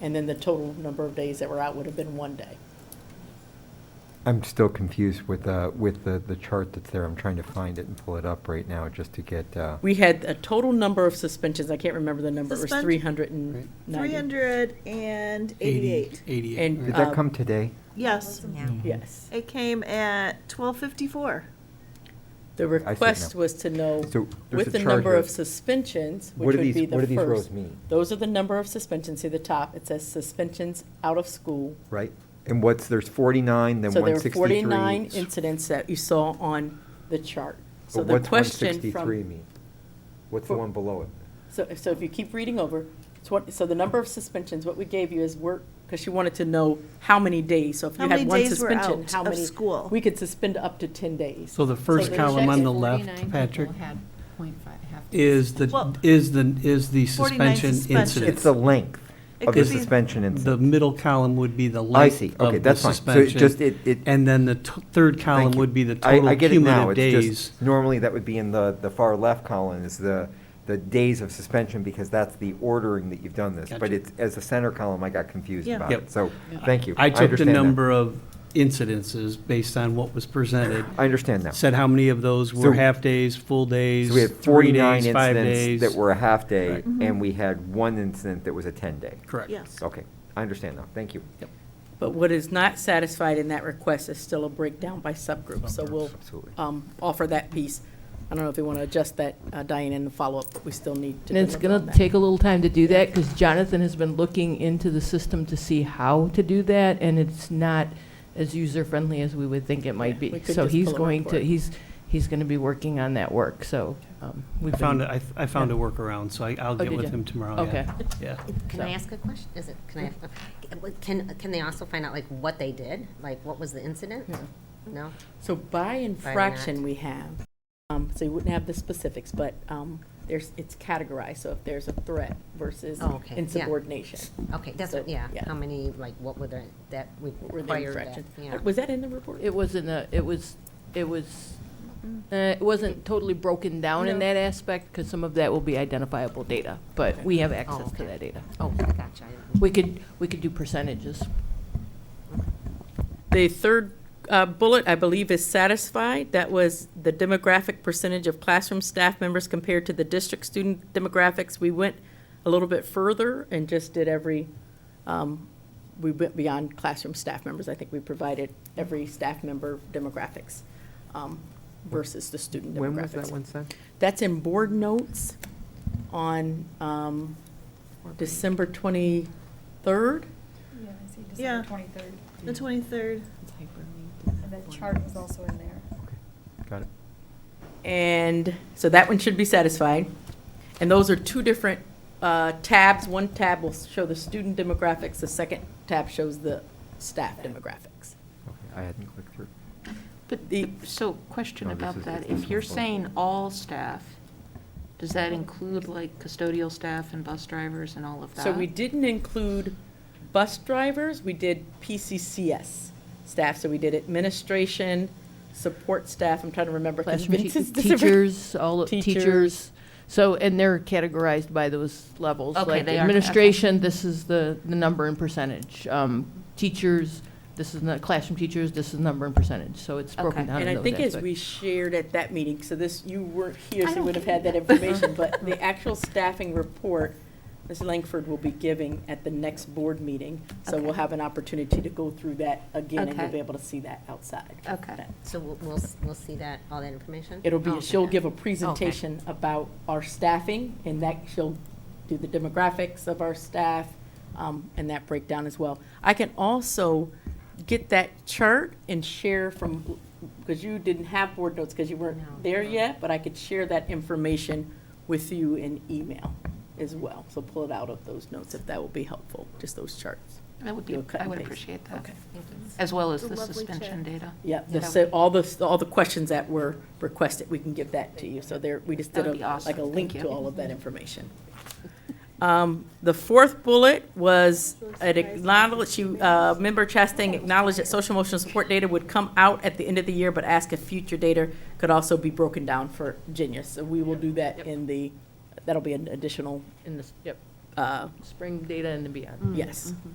and then the total number of days that were out would have been one day. I'm still confused with, uh, with the, the chart that's there. I'm trying to find it and pull it up right now just to get, uh, We had a total number of suspensions, I can't remember the number, it was Suspend- three hundred and Three ninety. hundred and eighty-eight. And- did Eighty-eight. Uh, that come today? Yes, Mm-hmm. Yes. it came at twelve fifty-four. The I see it now. request was to know, So with there's a the chart number here. of suspensions, What which do would be these, what do the these rows first. mean, Those are the number of suspensions, see the top, it says suspensions out of school. right? And what's, there's forty-nine, then So there one were sixty-three. forty-nine incidents that you saw on the chart. So But the what's one question sixty-three from, mean? What's the For- one below it? so, so if you keep reading over, it's what- so the number of suspensions, what we gave you is work, because you wanted to know how many days, so if How you many had one days were suspension, out how of many? school? We could suspend up to ten days. So the first they column checked on it the left, Patrick, is the, Well, is the, is the 49 suspension suspensions. It's incident. the length It of the could be- suspension The incident. middle column would be the I length see, okay, of the that's fine. So it just, suspension. it, it. And then the t- third column Thank you. would be the I- I total get it now. cumulative It's just- days. Normally, that would be in the, the far left column is the, the days of suspension because that's the ordering that you've done this. But Gotcha. it's, as the center column, I got confused Yeah. about Yep. it. So, thank you. I took the understand now. number of incidences based on what was presented, I understand now. So said how many of those So- were half-days, full days, we had three 49 days, five incidents days. that were a half day Right. and we had one incident that was a 10-day. Correct. Yes. Okay, I understand now. Thank you. But what is not satisfied in that request is still a breakdown by subgroup, so we'll Absolutely. um, offer that piece. I don't know if we want to adjust that, uh, Diane, in the follow-up, but we still need to. And it's deliver going on to that. take a little time to do that because Jonathan has been looking into the system to see how to do that, and it's not as user-friendly as we would think it Yeah, might we be. could So just he's pull a going to, report. he's, he's going to be working on that work, so. um, we've I found, been- a- I I found a workaround, so I- I'll get did with ya? him tomorrow. yeah. Okay. Yeah. Can I ask a question? Is it, can I, can, can they also find out like what they did? Like what was the incident? No? So by By infraction, act. we have, um, so you wouldn't have the specifics, but um, there's, it's categorized, so if there's a threat versus Oh, okay, yeah. insubordination. Okay, that's, So, what- yeah, yeah. how many, like what were the, that we what were the required that? infractions. Yeah. Was that in the report? It wasn't a, it was, it was, uh, it wasn't totally broken down in Mm-hmm. No. that aspect because some of that will be identifiable data, but we have access to okay. that data. Oh, gotcha. I- We could, we could do percentages. The third uh, bullet, I believe, is satisfied. That was the demographic percentage of classroom staff members compared to the district student demographics. We went a little bit further and just did every, um, we went beyond classroom staff members. I think we provided every staff member demographics um, versus the student demographics. When was that one sent? That's in board notes on um, December 23rd. Yeah, I see Yeah. December twenty-third, The twenty-third. and that chart was also in there. Got it. And so that one should be satisfied. And those are two different uh, tabs. One tab will show the student demographics, the second tab shows the staff demographics. Okay, I hadn't clicked through. But the, so question No, this about is- that, it's this if you're one's on. saying all staff, does that include like custodial staff and bus drivers and all of that? So we didn't include bus drivers, we did PCCS staff, so we did administration, support staff, I'm trying to remember. 'cause classroom Vince is te- different. teachers, all of Teachers. teachers. So, and they're categorized by those levels. Okay, like they are, okay. Administration, this is the, the number and percentage. Um, Teachers, this is, the classroom teachers, this is number and percentage. So it's broken Okay. down in And I those think as aspects. we shared at that meeting, so this, you weren't here, I so you don't would have had that think- information, but the actual staffing report, Ms. Langford will be giving at the next board meeting, so we'll Okay. have an opportunity to go through that again, and you'll Okay. be able to see that outside. Okay. So we'll, we'll, s- we'll see that, all that information? It'll be, Oh, she'll okay. give a presentation about our staffing, and that, she'll do the demographics of our staff, um, and that breakdown as well. I can also get that chart and share from, because you didn't have board notes, because you No. weren't there yet, but I could share that information with you in email as well. So pull it out of those notes if that will be helpful, just those charts. That would Do be, a cut I and would paste. appreciate that. Okay. Thank you. As well as It's a the lovely chart. suspension data. Yeah, the, Yeah. so all the, all the questions that were requested, we can give that to you. So there, we just did That would a, be awesome. like a link Thank to you. all of that information. Um, The fourth bullet was, it acknowledged, you, uh, member Chastain acknowledged that social emotional support data would come out at the end of the year, but asked if future data could also be broken down for Genius. So we will do that in the, that'll be an additional In this, yep. uh, uh, spring data and beyond. Mm. Mm-hmm. yes.